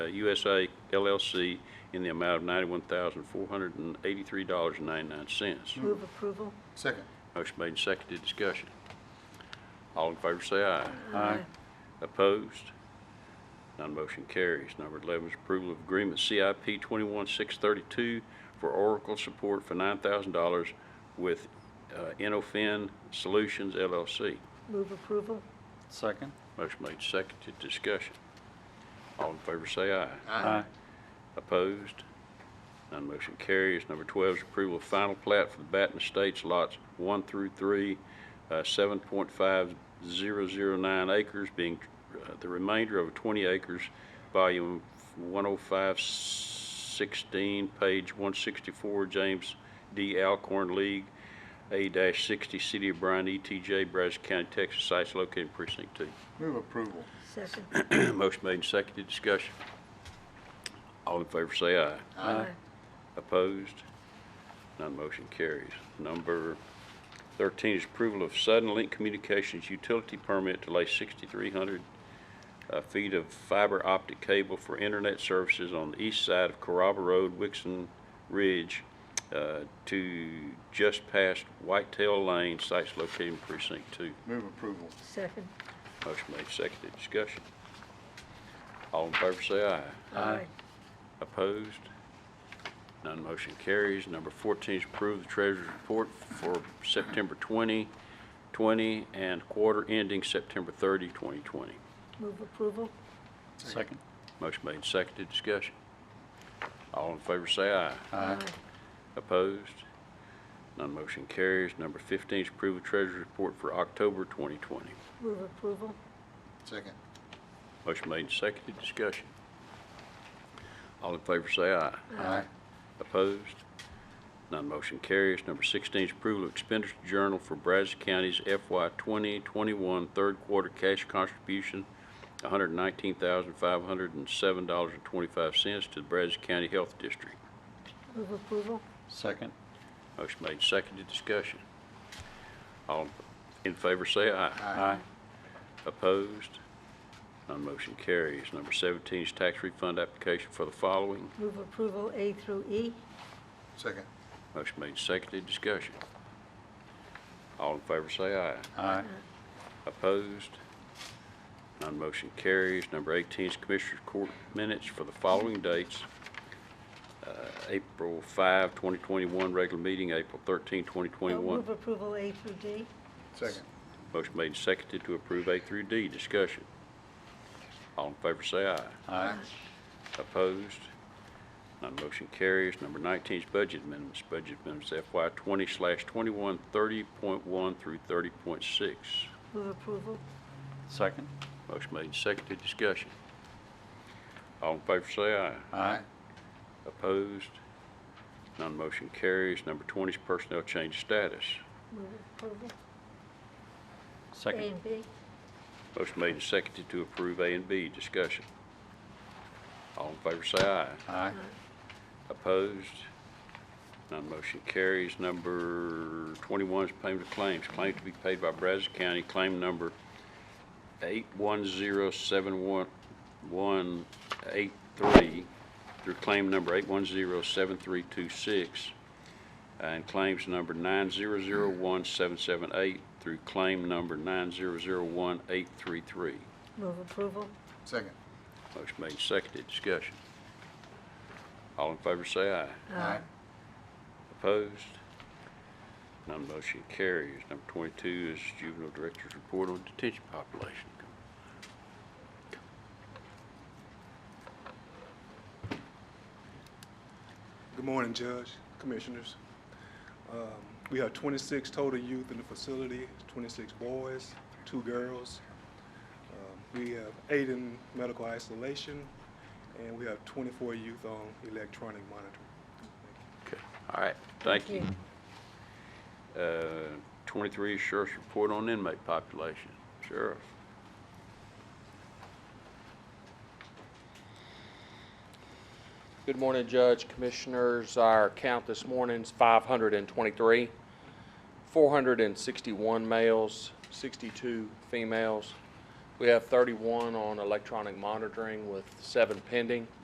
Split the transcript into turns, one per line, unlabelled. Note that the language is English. uh, USA LLC in the amount of $91,483.99.
Move approval?
Second.
Motion made and seconded, discussion. All in favor say aye. Aye. Opposed? None motion carries. Number 11 is approval of agreement CIP 21632 for Oracle support for $9,000 with uh, Inofin Solutions LLC.
Move approval?
Second.
Motion made and seconded, discussion. All in favor say aye.
Aye.
Opposed? None motion carries. Number 12 is approval of final plat for the Baton Estates lots 1 through 3, uh, 7.5009 acres, being uh, the remainder of 20 acres, volume 10516, page 164, James D. Alcorn League, A-60, City of Bryan, ETJ, Brazos County, Texas, sites located in precinct 2.
Move approval.
Second?
Motion made and seconded, discussion. All in favor say aye.
Aye.
Opposed? None motion carries. Number 13 is approval of Sudden Link Communications utility permit to lay 6,300 uh, feet of fiber optic cable for internet services on the east side of Carrabba Road, Wixon Ridge, uh, to just past Whitetail Lane, sites located in precinct 2.
Move approval.
Second?
Motion made, seconded, discussion. All in favor say aye.
Aye.
Opposed? None motion carries. Number 14 is approve the treasurer's report for September 2020 and quarter ending September 30, 2020.
Move approval?
Second.
Motion made, seconded, discussion. All in favor say aye.
Aye.
Opposed? None motion carries. Number 15 is approve the treasurer's report for October 2020.
Move approval?
Second.
Motion made, seconded, discussion. All in favor say aye.
Aye.
Opposed? None motion carries. Number 16 is approval of expenditure journal for Brazos County's FY 2021 third quarter cash contribution, $119,507.25 to the Brazos County Health District.
Move approval?
Second.
Motion made, seconded, discussion. All in favor say aye.
Aye.
Opposed? None motion carries. Number 17 is tax refund application for the following.
Move approval A through E?
Second.
Motion made, seconded, discussion. All in favor say aye.
Aye.
Opposed? None motion carries. Number 18 is Commissioners Court minutes for the following dates. Uh, April 5, 2021, regular meeting, April 13,
Oh,
2021.
Move approval A through D?
Second.
Motion made and seconded to approve A through D. Discussion. All in favor say aye.
Aye.
Opposed? None motion carries. Number 19 is budget amendments. Budget amendments FY 20/21, 30.1 through 30.6.
Move approval?
Second.
Motion made and seconded, discussion. All in favor say aye.
Aye.
Opposed? None motion carries. Number 20 is personnel change status.
Move approval? A
Second.
and B?
Motion made and seconded to approve A and B, discussion. All in favor say aye.
Aye.
Opposed? None motion carries. Number 21 is payment of claims. Claim to be paid by Brazos County, claim number 8107183 through claim number 8107326, and claims number 9001778 through claim number 9001833.
Move approval?
Second.
Motion made, and seconded, discussion. All in favor say aye.
Aye.
Opposed? None motion carries. Number 22 is Juvenile Director's Report on Detention Population.
Good morning, Judge, Commissioners. Um, We have 26 total youth in the facility, 26 boys, two girls. Um, We have eight in medical isolation, and we have 24 youth on electronic monitoring.
Okay. All right, thank you.
Thank
Uh, 23 is Sheriff's Report on Inmate Population. Sheriff,
Good morning, Judge, Commissioners. Our count this morning's 523, 461 males, 62 females, We have 31 on electronic monitoring with seven pending.